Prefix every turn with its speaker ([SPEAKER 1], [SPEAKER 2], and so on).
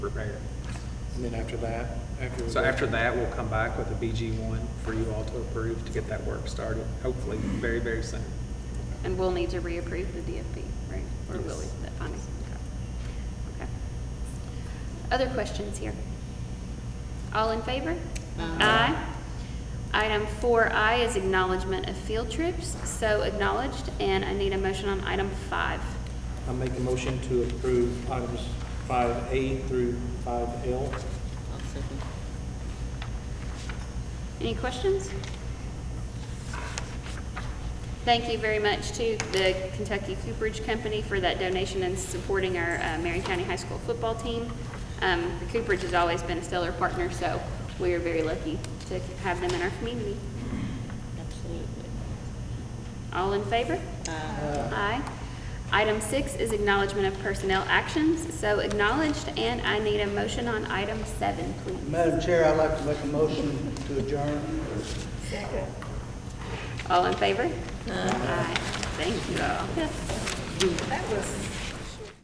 [SPEAKER 1] prepared.
[SPEAKER 2] And then after that, after.
[SPEAKER 1] So after that, we'll come back with a BG one for you all to approve to get that work started, hopefully very, very soon.
[SPEAKER 3] And we'll need to reapprove the DFP, right? Or will we,
[SPEAKER 1] Yes.
[SPEAKER 3] that finding? Okay. Okay. Other questions here? All in favor? Aye. Item four I is acknowledgement of field trips, so acknowledged, and I need a motion on item five.
[SPEAKER 2] I make a motion to approve items five A through five L.
[SPEAKER 4] I'll second.
[SPEAKER 3] Any questions? Thank you very much to the Kentucky Cooperage Company for that donation and supporting our uh, Marion County High School football team. Um, The Cooperage has always been a stellar partner, so we are very lucky to have them in our community.
[SPEAKER 4] Absolutely.
[SPEAKER 3] All in favor? Aye. Item six is acknowledgement of personnel actions, so acknowledged, and I need a motion on item seven, please.
[SPEAKER 5] Madam Chair, I'd like to make a motion to adjourn.
[SPEAKER 3] All in favor? Aye. Thank you all.
[SPEAKER 6] That was